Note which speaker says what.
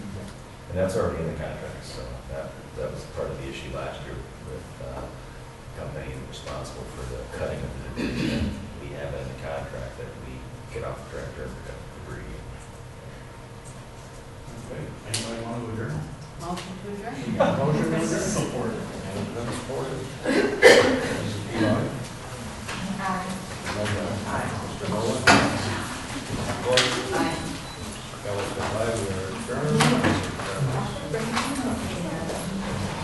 Speaker 1: And that's already in the contract, so that, that was part of the issue last year with uh, the company responsible for the cutting of the debris. And We have it in the contract that we get off the tractor and cut the debris.
Speaker 2: Okay, anybody want to adjourn?
Speaker 3: Motion to adjourn?
Speaker 2: You got a Motion to adjourn? Support.
Speaker 1: And that's for it.
Speaker 2: Mrs. Pilar?